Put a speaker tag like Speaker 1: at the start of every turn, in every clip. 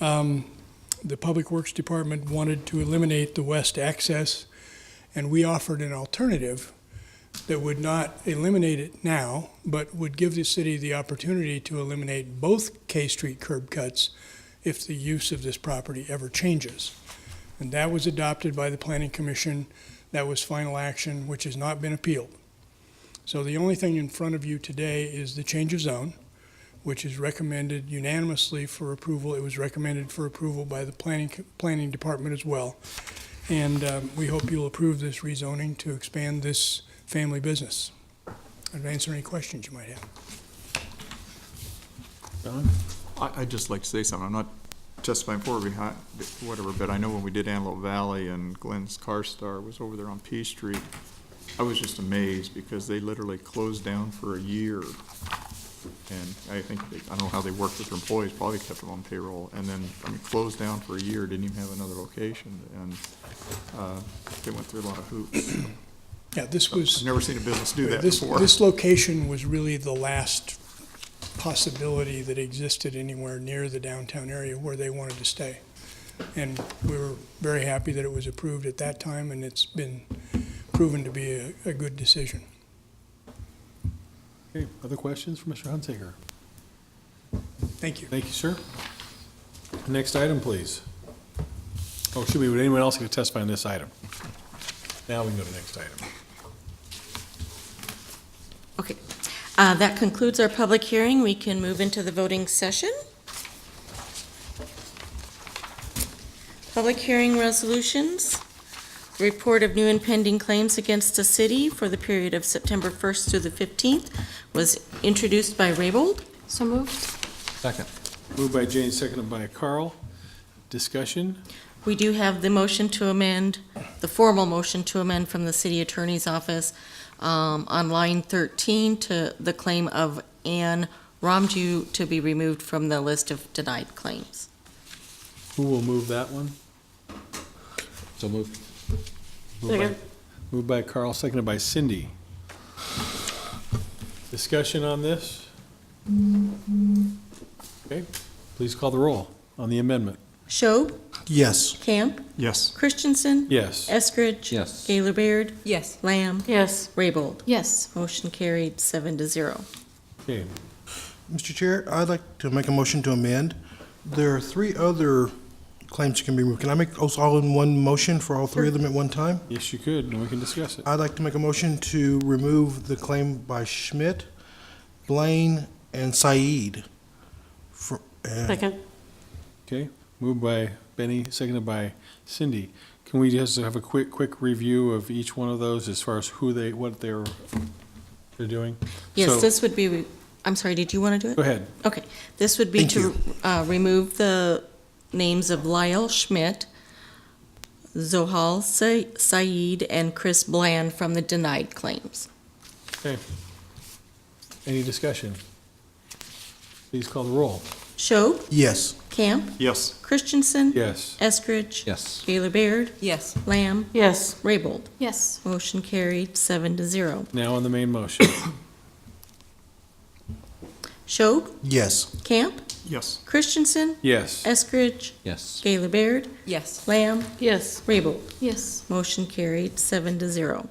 Speaker 1: um, the Public Works Department wanted to eliminate the west access, and we offered an alternative that would not eliminate it now, but would give the city the opportunity to eliminate both K Street curb cuts if the use of this property ever changes. And that was adopted by the Planning Commission. That was final action, which has not been appealed. So the only thing in front of you today is the change of zone, which is recommended unanimously for approval. It was recommended for approval by the Planning, Planning Department as well. And um, we hope you'll approve this rezoning to expand this family business. I'd answer any questions you might have.
Speaker 2: I, I'd just like to say something. I'm not testifying for or behind, whatever, but I know when we did Antelope Valley and Glenn's Car Star was over there on P Street, I was just amazed because they literally closed down for a year. And I think, they- I don't know how they worked with their employees, probably kept them on payroll, and then, I mean, closed down for a year, didn't even have another location, and, uh, they went through a lot of hoops.
Speaker 1: Yeah, this was.
Speaker 2: I've never seen a business do that
Speaker 1: This,
Speaker 2: before.
Speaker 1: this location was really the last possibility that existed anywhere near the downtown area where they wanted to stay. And we were very happy that it was approved at that time, and it's been proven to be a, a good decision.
Speaker 3: Okay, other questions for Mr. Hunsaker?
Speaker 1: Thank you.
Speaker 3: Thank you, sir. Next item, please. Oh, should we, would anyone else get to testify on this item? Now we can go to the next item.
Speaker 4: Okay, Uh, that concludes our public hearing. We can move into the voting session. Public hearing resolutions, report of new impending claims against the city for the period of September 1st through the 15th was introduced by Raybold.
Speaker 5: So moved.
Speaker 2: Second.
Speaker 3: Moved by Jane, seconded by Carl. Discussion?
Speaker 4: We do have the motion to amend, the formal motion to amend from the city attorney's office um, on line 13 to the claim of Anne Romju to be removed from the list of denied claims.
Speaker 3: Who will move that one? So moved. by-
Speaker 5: Second.
Speaker 3: Moved by Carl, seconded by Cindy. Discussion on this? Okay, please call the roll on the amendment.
Speaker 4: Schob,
Speaker 6: Yes.
Speaker 4: Camp,
Speaker 2: Yes.
Speaker 4: Christensen,
Speaker 3: Yes.
Speaker 4: Eskridge.
Speaker 6: Yes.
Speaker 4: Gaylor Baird,
Speaker 5: Yes.
Speaker 4: Lamb,
Speaker 5: Yes.
Speaker 4: Raybold.
Speaker 5: Yes.
Speaker 4: Motion carried seven to zero.
Speaker 3: Okay,
Speaker 6: Mr. Chair, I'd like to make a motion to amend. There are three other claims that can be removed. Can I make those all in one motion for all three of them at one time?
Speaker 3: yes, you could, and we can discuss it.
Speaker 6: I'd like to make a motion to remove the claim by Schmidt, Blaine, and Said. For- uh, and-
Speaker 5: Second.
Speaker 3: Okay, moved by Benny, seconded by Cindy. Can we just have a quick, quick review of each one of those as far as who they, what they're, they're doing? So-
Speaker 4: Yes, this would be, I'm sorry, did you want to do it?
Speaker 3: Go ahead.
Speaker 4: Okay, this would be
Speaker 6: Thank
Speaker 4: to uh, remove the names of Lyle Schmidt, Zohal Sa- Saeed, and Chris Bland from the denied claims.
Speaker 3: Okay. Any discussion? Please call the roll.
Speaker 4: Schob,
Speaker 6: Yes.
Speaker 4: Camp,
Speaker 2: Yes.
Speaker 4: Christensen.
Speaker 3: Yes.
Speaker 4: Eskridge.
Speaker 6: Yes.
Speaker 4: Gaylor Baird,
Speaker 5: Yes.
Speaker 4: Lamb,
Speaker 5: Yes.
Speaker 4: Raybold.
Speaker 5: Yes.
Speaker 4: Motion carried, seven to zero.
Speaker 3: Now on the main motion.
Speaker 4: Schob,
Speaker 6: Yes.
Speaker 4: Camp,
Speaker 2: Yes.
Speaker 4: Christensen,
Speaker 3: Yes.
Speaker 4: Eskridge,
Speaker 6: Yes.
Speaker 4: Gaylor Baird,
Speaker 5: Yes.
Speaker 4: Lamb,
Speaker 5: Yes.
Speaker 4: Raybold.
Speaker 5: Yes.
Speaker 4: Motion carried, seven to zero.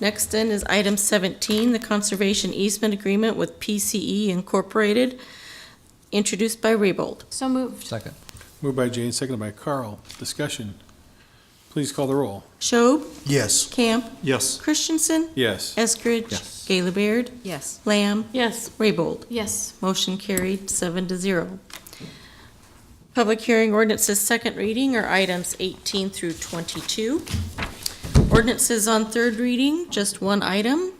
Speaker 4: Next then is item seventeen, the conservation easement agreement with PCE Incorporated, introduced by Raybold.
Speaker 5: So moved.
Speaker 6: Second.
Speaker 3: Moved by Jane, seconded by Carl. Discussion. Please call the roll.
Speaker 4: Schob,
Speaker 6: Yes.
Speaker 4: Camp,
Speaker 2: Yes.
Speaker 4: Christensen,
Speaker 3: Yes.
Speaker 4: Eskridge,
Speaker 6: Yes.
Speaker 4: Gaylor Baird,
Speaker 5: Yes.
Speaker 4: Lamb,
Speaker 5: Yes.
Speaker 4: Raybold.
Speaker 5: Yes.
Speaker 4: Motion carried, seven to zero. Public hearing ordinances, second reading are items 18 through 22. Ordinances on third reading, just one item.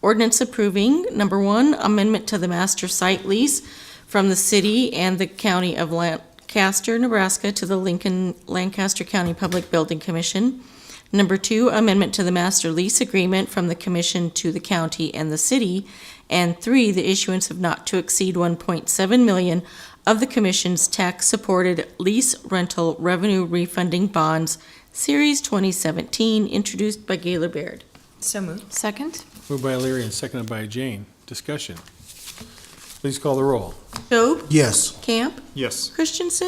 Speaker 4: Ordinance approving, number one, amendment to the master site lease from the city and the county of Lancaster, Nebraska to the Lincoln Lancaster County Public Building Commission. Number two, amendment to the master lease agreement from the commission to the county and the city and three, the issuance of not to exceed 1.7 million of the commission's tax-supported lease rental revenue refunding bonds, Series 2017, introduced by Gaylor Baird.
Speaker 5: So moved. Second.
Speaker 3: Moved by Leary and seconded by Jane. Discussion. Please call the roll.
Speaker 4: Schob,
Speaker 6: Yes.
Speaker 4: Camp,
Speaker 2: Yes.
Speaker 4: Christensen,